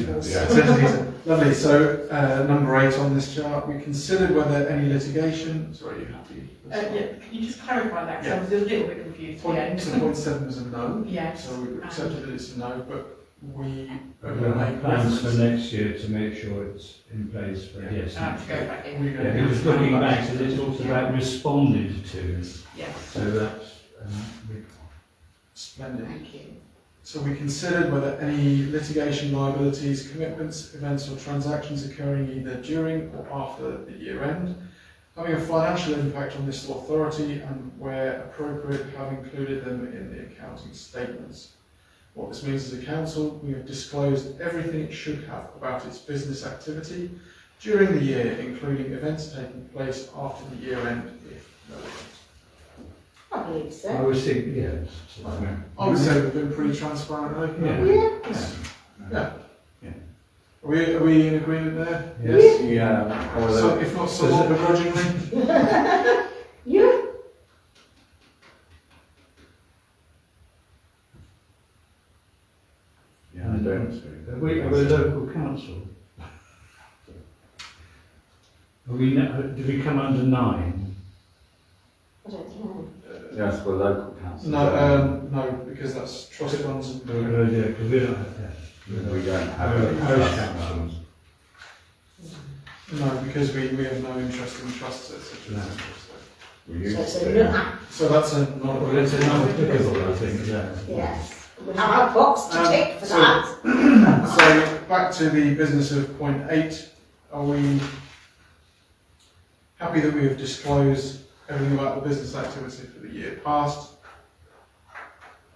Yes. Yeah. Lovely. So, uh, number eight on this chart, we considered whether any litigation, sorry, are you happy? Uh, yeah, can you just clarify that, because I was a little bit confused Um, at the Point, so end. point seven was a no, Yes, so we accepted that it's a no, but we are We're going to going to make make plans for reference. next year to make sure it's in place for, Yeah. yes. I have uh, to go back in, We're Yeah, gonna it was have looking to- back, so it's also about responded to, yes, so that's, um, we- Splendid. thank you. So we considered whether any litigation liabilities, commitments, events or transactions occurring either during or after the year end, having a financial impact on this authority and where appropriate have included them in the accounting statements. What this means is a council, we have disclosed everything it should have about its business activity during the year, including events taking place after the year end, if relevant. I believe I so. was thinking, yes. so- I would say we've been pretty transparent, haven't we? Yeah. Yeah. Are we, are we in agreement there? Yes. Yeah, So, if not somewhat begrudgingly, Yeah. yeah, I Mm. don't see. Are we, are we a local council? Are we, no- do we come under nine? I don't know. Yes, for local council. no, um, no, because that's trust funds and. No, no, yeah, because we don't have that. We don't have. Parish any parish trust councils. funds. No, because we, we have no interest in trusts, et cetera, et No. cetera, We So used it's to. a no. so. So that's a Well, non. that's a non-applicable, I think, yeah. Yes. We'll have a box to Um, tick for so- that. So back to the business of point eight, are we happy that we have disclosed everything about the business activity for the year past?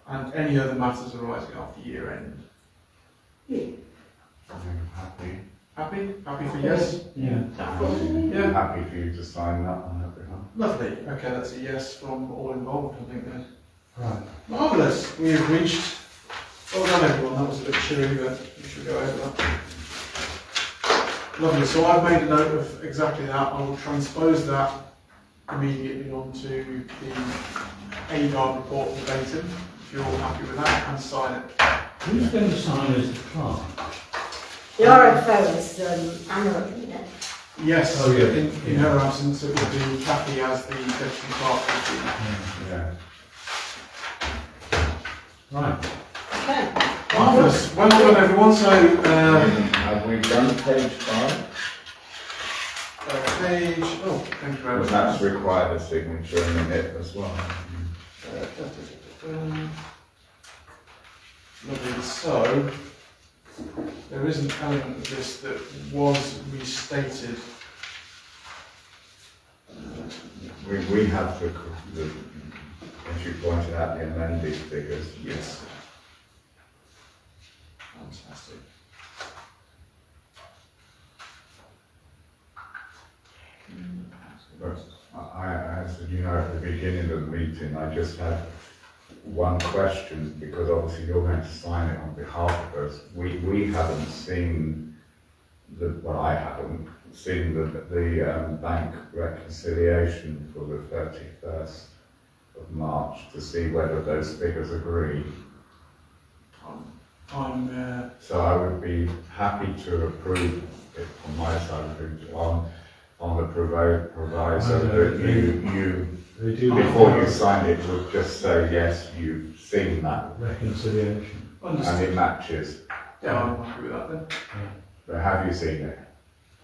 And any other matters arising after year end? I'm Happy, Happy, happy for yes? Yeah. Yeah. happy for you to sign that on our behalf. Lovely, okay, that's a yes from all involved, I think then. Right. Marvellous. We have reached. Well done, everyone. That was a bit cheery, but we should go over that. Lovely. So I've made a note of exactly that. I will transpose that immediately onto the ADAR report verbatim, if you're all happy with that, and sign it. Who's going to sign as the clerk? The RFO is, um, Anna, isn't it? Yes. Oh, yeah. In, in her absence, it will be Kathy as the deputy clerk. of the- Yeah. Right. Okay. Marvellous. Well done, everyone. So, Um, uh, Have we done page five? uh, page, oh, thank you very Well, much. that's required a signature in a minute as well. Mm. Lovely, so, there is an element of this that was restated. We, we have the, the, as you pointed out, the amended figures. Yes. Fantastic. But I, I, as you know, at the beginning of the meeting, I just had one question, because obviously you're going to sign it on behalf of us. We, we haven't seen the, well, I haven't seen the, the um, bank reconciliation for the thirty-first of March to see whether those figures agree. I'm- I'm, So I would be happy to approve it from my side of it on, on the provi- proviso that you, you, They do. before you sign it, would just say, yes, you've seen that Reconciliation. uh, and understood. it matches. Yeah, I'm happy with that then. But have you seen it?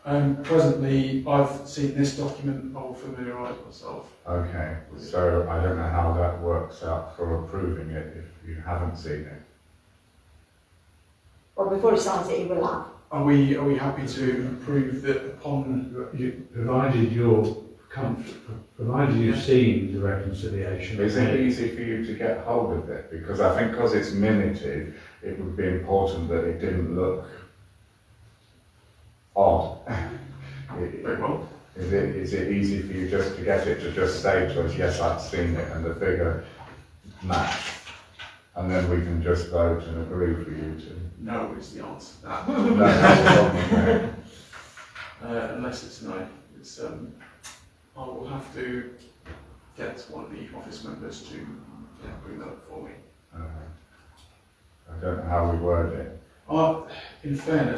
Um, presently, I've seen this document, I'll familiarise myself. Okay, so I don't know how that works out for approving it if you haven't seen it. Well, before he signs it, he will have. Are we, are we happy to approve that upon, You, provided you're comfort, provided you've seen the reconciliation. Is it easy for you to get hold of it? Because I think because it's minuted, it would be important that it didn't look odd. very well, Is it, is it easy for you just to get it to just say to us, yes, I've seen it, and the figure match? And then we can just vote and agree for you to. no is the answer to that, No, that's a problem, okay. uh, unless it's no. It's, um, I will have to get one of the office members to, yeah, bring that up for me. Uh, I don't know how we word it. Uh, in fairness,